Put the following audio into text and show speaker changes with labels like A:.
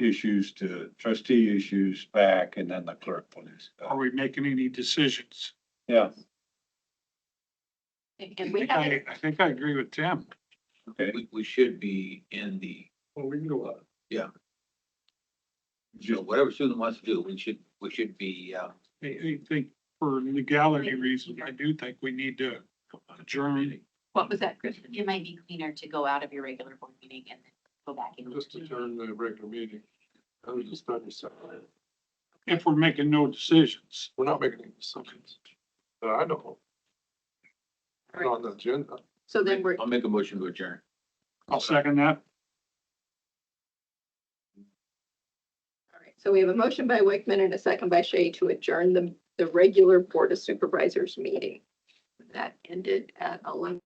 A: issues to trustee issues back, and then the clerk one is.
B: Are we making any decisions?
A: Yeah,
B: I
C: And we
B: think
C: haven't,
B: I, I think I agree with Tim.
A: okay,
D: We, we should be in the,
B: Well, we can go up.
D: you know, whatever student wants to do, we should, we should be, uh,
B: I, I think for legality reasons, I do think we need to adjourn.
C: what was that, Kristen? It might be cleaner to go out of your regular board meeting and then go back in.
B: the regular meeting. I was just starting something. If we're making no decisions. We're not making any decisions. I know.
C: Right.
B: the agenda.
C: So then we're,
D: I'll make a motion to adjourn.
B: I'll second that.
E: All right, so we have a motion by Wickman and a second by Shay to adjourn the, the regular Board of Supervisors meeting. That ended at eleven